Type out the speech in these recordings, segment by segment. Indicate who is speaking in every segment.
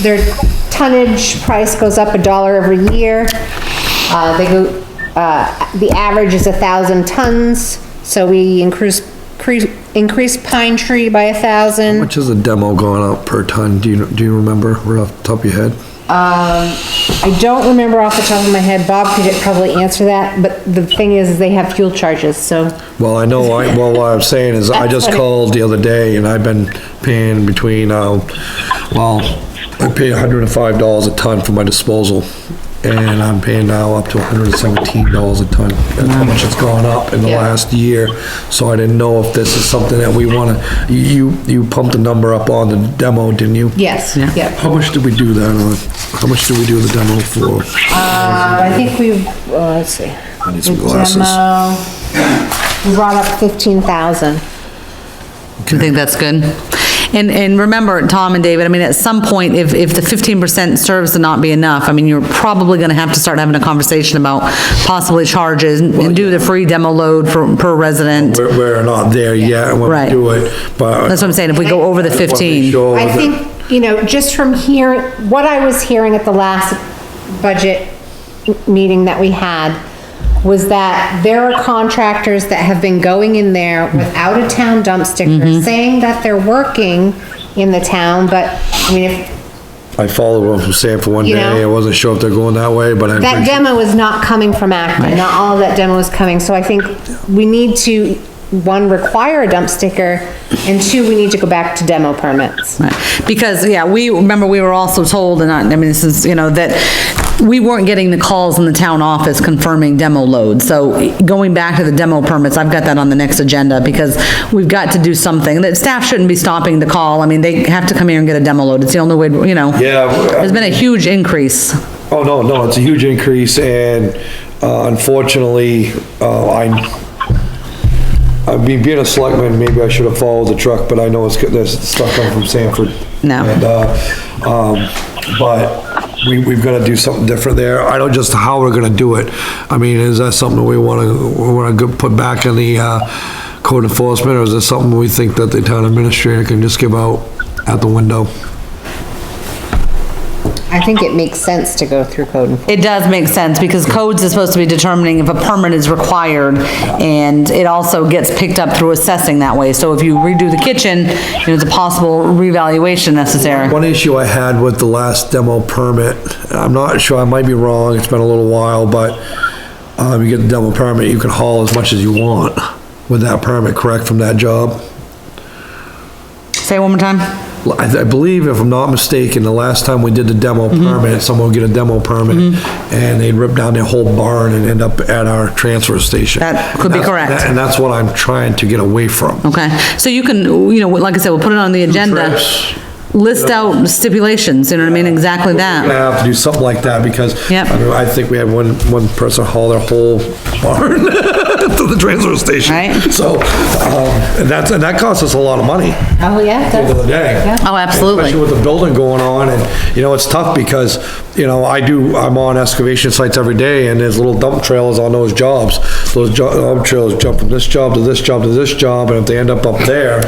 Speaker 1: their tonnage price goes up a dollar every year. Uh, they go, uh, the average is a thousand tons, so we increase, cre- increase pine tree by a thousand.
Speaker 2: Which is a demo going out per ton, do you, do you remember, right off the top of your head?
Speaker 1: I don't remember off the top of my head, Bob could probably answer that, but the thing is, they have fuel charges, so.
Speaker 2: Well, I know, I, well, what I'm saying is, I just called the other day, and I've been paying between, um, well, I pay hundred and five dollars a ton for my disposal, and I'm paying now up to hundred and seventeen dollars a ton. That's how much it's gone up in the
Speaker 1: Yeah.
Speaker 2: last year, so I didn't know if this is something that we wanna, you, you pumped the number up on the demo, didn't you?
Speaker 1: Yes, yeah.
Speaker 2: How much did we do that on? How much did we do the demo for?
Speaker 1: Uh, I think we've, uh, let's see.
Speaker 2: I need some glasses.
Speaker 1: Demo, We brought up fifteen thousand.
Speaker 3: I think that's good. And, and remember, Tom and David, I mean, at some point, if, if the fifteen percent serves to not be enough, I mean, you're probably gonna have to start having a conversation about possibly charges and do the free demo load for, per resident.
Speaker 2: We're, we're not there yet when we
Speaker 3: Right.
Speaker 2: do it, but.
Speaker 3: That's what I'm saying, if we go over the fifteen.
Speaker 2: Sure
Speaker 1: I
Speaker 2: that-
Speaker 1: think, you know, just from here, what I was hearing at the last budget meeting that we had was that there are contractors that have been going in there without a town dump sticker, saying that they're working in the town, but, I mean, if,
Speaker 2: I followed one from Sam for one
Speaker 1: You
Speaker 2: day, I
Speaker 1: know?
Speaker 2: wasn't sure if they're going that way, but I'm
Speaker 1: that
Speaker 2: pretty sure-
Speaker 1: demo is not coming from Acton, not all of that demo is coming, so I think we need to, one, require a dump sticker, and two, we need to go back to demo permits.
Speaker 3: Right. Because, yeah, we, remember, we were also told, and I, I mean, this is, you know, that we weren't getting the calls in the town office confirming demo load. So going back to the demo permits, I've got that on the next agenda because we've got to do something. That staff shouldn't be stopping the call. I mean, they have to come here and get a demo load. It's the only way, you know.
Speaker 2: Yeah, w-
Speaker 3: There's been a huge increase.
Speaker 2: Oh, no, no, it's a huge increase and uh, unfortunately, uh, I, I mean, being a selectman, maybe I should have followed the truck, but I know it's, good- there's stuff coming from Sanford.
Speaker 3: No.
Speaker 2: And, uh, um, but we, we've gotta do something different there. I don't just how we're gonna do it. I mean, is that something we wanna, we wanna go- put back in the, uh, code enforcement or is it something we think that the town administrator can just give out out the window?
Speaker 1: I think it makes sense to go through code enforcement.
Speaker 3: It does make sense, because codes is supposed to be determining if a permit is required, and it also gets picked up through assessing that way. So if you redo the kitchen, you know, it's a possible revaluation necessary.
Speaker 2: One issue I had with the last demo permit, and I'm not sure, I might be wrong, it's been a little while, but, um, you get the demo permit, you can haul as much as you want with that permit, correct, from that job?
Speaker 3: Say it one more time?
Speaker 2: I I believe, if I'm not mistaken, the last time we did the demo
Speaker 3: Mm-hmm.
Speaker 2: permit, someone would get a demo permit, and they'd rip down their whole barn and end up at our transfer station.
Speaker 3: That could be
Speaker 2: And that's-
Speaker 3: correct.
Speaker 2: And that's what I'm trying to get away from.
Speaker 3: Okay, so you can, you know, like I said, we'll put it on the agenda.
Speaker 2: trips.
Speaker 3: List out stipulations, you know what I mean, exactly
Speaker 2: We're gonna
Speaker 3: that.
Speaker 2: have to do something like that, because
Speaker 3: Um, Yep.
Speaker 2: I mean, I think we had one, one person haul their whole barn to the transfer station.
Speaker 3: Right.
Speaker 2: So, um, and that's, and that costs us a lot of money
Speaker 1: Oh, yeah,
Speaker 2: at the end of the
Speaker 1: that's,
Speaker 2: day.
Speaker 3: Oh,
Speaker 2: Especially
Speaker 3: absolutely.
Speaker 2: with the building going on, and, you know, it's tough because, you know, I do, I'm on excavation sites every day, and there's little dump trailers on those jobs. Those jo- dump trailers jump from this job to this job to this job, and if they end up up there,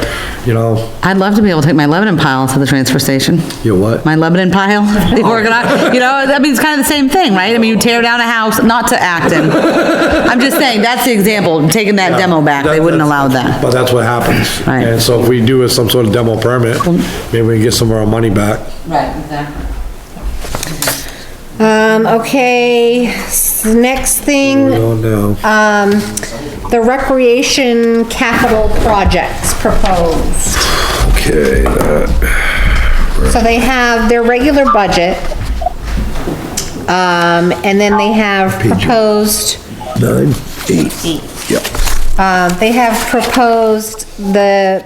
Speaker 2: you know,
Speaker 3: I'd love to be able to take my Lebanon pile to the transfer station.
Speaker 2: you what?
Speaker 3: my Lebanon pile, the organi- you know, I mean, it's kind of the same thing, right? I mean, you tear down a house, not to Acton. I'm just saying, that's the example, taking that demo back, they wouldn't allow that.
Speaker 2: But Uh, that's what happens.
Speaker 3: Right.
Speaker 2: And so if we do it some sort of demo permit, maybe we can get some of our money back.
Speaker 3: Right, exactly.
Speaker 1: um, okay, s- next
Speaker 2: We
Speaker 1: thing,
Speaker 2: don't know.
Speaker 3: Uh,
Speaker 1: um, the recreation capital projects proposed.
Speaker 2: Okay, uh, that-
Speaker 1: So they have their regular budget, um, and then they have proposed,
Speaker 2: nine, eight. Yep.
Speaker 1: uh, they have proposed the,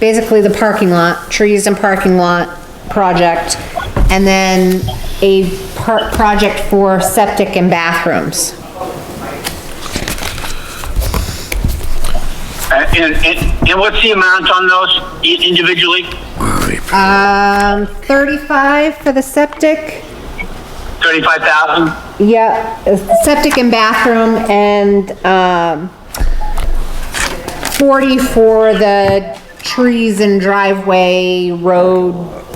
Speaker 1: basically the parking lot, trees and parking lot project, and then a par project for septic and bathrooms.
Speaker 4: Uh, And, and, and what's the amount on those i- individually?
Speaker 1: Um, 35 for the septic.
Speaker 4: Thirty-five thousand?
Speaker 1: Yeah, septic and bathroom and, um, 40 for the trees and driveway, road,